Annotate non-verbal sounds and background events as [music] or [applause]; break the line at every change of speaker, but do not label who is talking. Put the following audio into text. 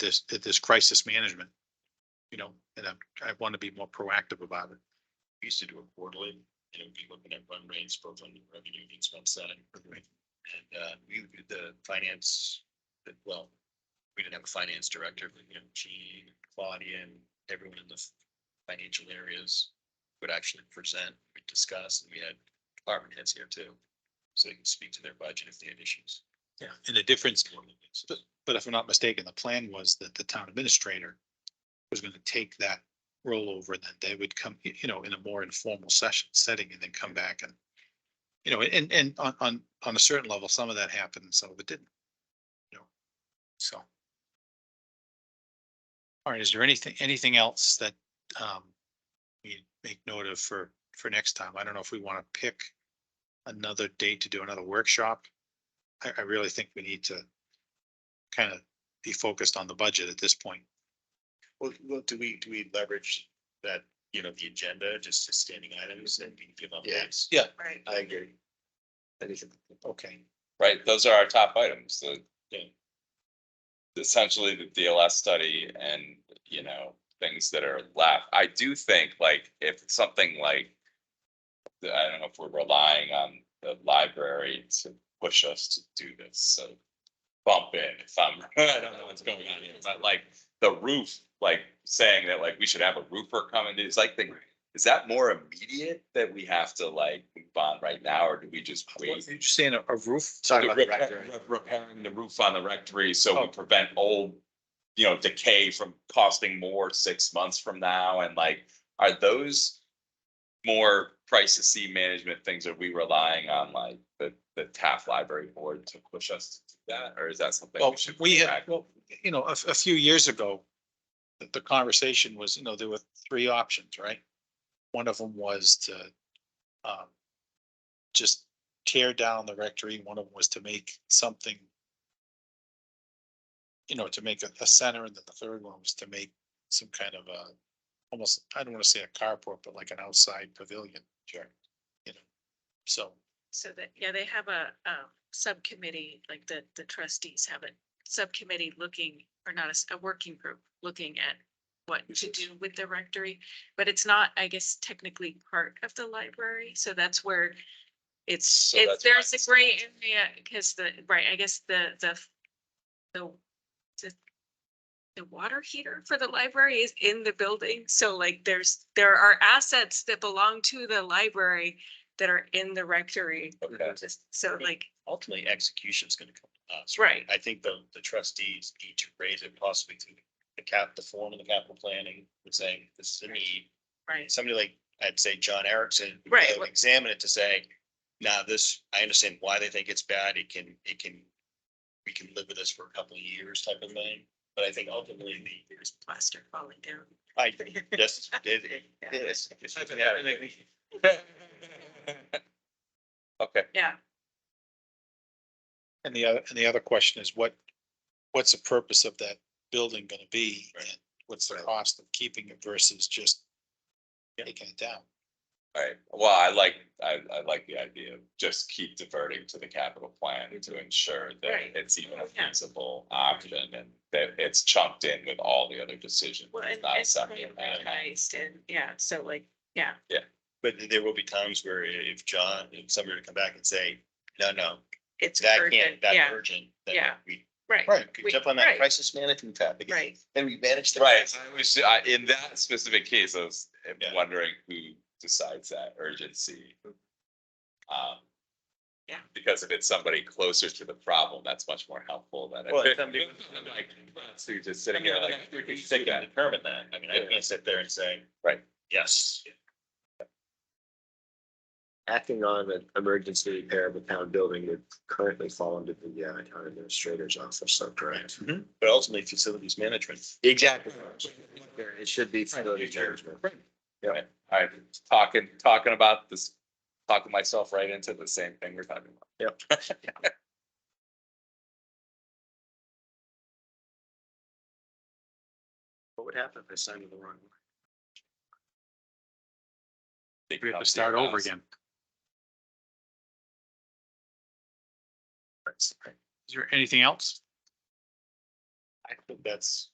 this, at this crisis management. You know, and I'm, I want to be more proactive about it.
We used to do it quarterly, and it would be looking at run rates both on the revenue and expense side. And uh, we would do the finance, well, we didn't have a finance director, but you know, Gene, Claudia, and everyone in the f- financial areas would actually present, we discuss, and we had department heads here too. So they can speak to their budget if they had issues.
Yeah. And the difference, but if I'm not mistaken, the plan was that the town administrator was going to take that rollover and that they would come, y- you know, in a more informal session, setting and then come back and, you know, and, and on, on, on a certain level, some of that happened and some of it didn't. You know, so. All right, is there anything, anything else that, um, we make note of for, for next time? I don't know if we want to pick another date to do another workshop. I, I really think we need to kind of be focused on the budget at this point.
Well, well, do we, do we leverage that, you know, the agenda, just as standing items and we give updates?
Yeah.
Right.
I agree.
Okay.
right? Those are our top items, the.
Yeah.
Essentially the DLS study and, you know, things that are left. I do think like if it's something like. I don't know if we're relying on the library to push us to do this, so. Bump in if I'm, [laughs] I don't know what's going on here, but like the roof, like saying that like we should have a roofer come and do, it's like the. Is that more immediate that we have to like move on right now, or do we just
You're
wait?
saying a a roof?
the
Sorry about
repair-
that.
re- Repairing the roof on the rectory, so
Oh.
we prevent old, you know, decay from costing more six months from now, and like, are those? More crisis management things, are we relying on like the, the Taft Library Board to push us to do that, or is that something?
Well,
should
we
bring
had,
back?
well, you know, a, a few years ago, the, the conversation was, you know, there were three options, right? One of them was to, um, just tear down the rectory. One of them was to make something, you know, to make a, a center, and then the third one was to make some kind of a, almost, I don't want to say a carport, but like an outside pavilion. Sure. You know, so.
So that, yeah, they have a, um, subcommittee, like the, the trustees have a subcommittee looking, or not a, s- a working group, looking at what to do with the rectory, but it's not, I guess, technically part of the library, so that's where it's,
So that's
it's,
why
there's a
it's-
gray area, because the, right, I guess the, the, the, the the water heater for the library is in the building, so like there's, there are assets that belong to the library that are in the rectory.
Okay.
Just so like,
Ultimately, execution's gonna come to us.
right,
I think the, the trustees need to raise it possibly to the cap, the form of the capital planning, and saying this is a need.
right,
Somebody like, I'd say John Erickson. would
Right.
go Examine it to say, now this, I understand why they think it's bad. It can, it can, we can live with this for a couple of years type of thing. But I think ultimately the,
there's plaster falling down.
I, yes, it, it, yes.
Okay,
Yeah,
And the other, and the other question is what, what's the purpose of that building gonna be?
Right.
and What's the
Right.
cost of keeping it versus just
Yeah.
taking it down?
alright, well, I like, I, I like the idea of just keep diverting to the capital plan to ensure
Mm-hmm. Right.
that it's even a
Yeah.
feasible option and that it's chunked in with all the other decisions.
well, and
It's not
it's
separate.
organized and, yeah, so like, yeah,
But there will be times where if John, if somebody were to come back and say, no, no,
it's
that
urgent,
can't, that
yeah,
urgent. then
Yeah.
We
right,
Right.
could
We-
jump on that
right.
crisis management topic.
right.
And we manage the.
Right, I was, I, in that specific case, I was
Yeah.
wondering who decides that urgency. Um.
Mm-hmm. Yeah.
Because if it's somebody closer to the problem, that's much more helpful than. if
Well,
it-
somebody-
[laughs] I'm like, So you're just
I
sitting
mean,
here
like,
like.
we can
"Who's doing
sit and
that?"
determine that. I mean, I
Yeah.
can't sit there and say.
Right.
Yes.
acting on an emergency repair of a town building would currently fall under the uh, town administrator's office, so correct.
Mm-hmm. But ultimately facilities management.
Exactly. It should be facility management.
I'm talking, talking about this, talking myself right into the same thing we're talking about.
What would happen if I signed the wrong?
Big
We have to
company
start over
house.
again. Is there anything else?
I think that's